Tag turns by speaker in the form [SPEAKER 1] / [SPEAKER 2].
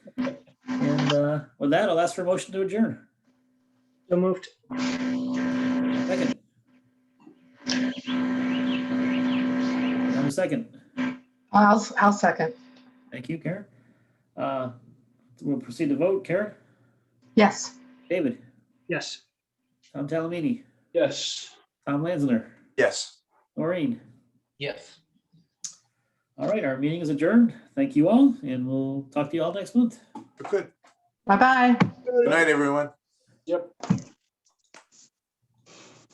[SPEAKER 1] uh, that, I'll ask for a motion to adjourn.
[SPEAKER 2] So moved.
[SPEAKER 1] Second. I'm second.
[SPEAKER 3] I'll, s- I'll second.
[SPEAKER 1] Thank you, Karen. Uh, We'll proceed to vote. Karen,
[SPEAKER 3] Yes.
[SPEAKER 1] David,
[SPEAKER 2] Yes.
[SPEAKER 1] Tom Talamini,
[SPEAKER 2] Yes.
[SPEAKER 1] Tom Lanzner,
[SPEAKER 4] Yes.
[SPEAKER 1] Maureen.
[SPEAKER 5] Yes.
[SPEAKER 1] All right, our meeting is adjourned. Thank you all, and we'll talk to you all next month.
[SPEAKER 4] Good.
[SPEAKER 3] Bye-bye.
[SPEAKER 4] Good night, everyone.
[SPEAKER 2] Yep.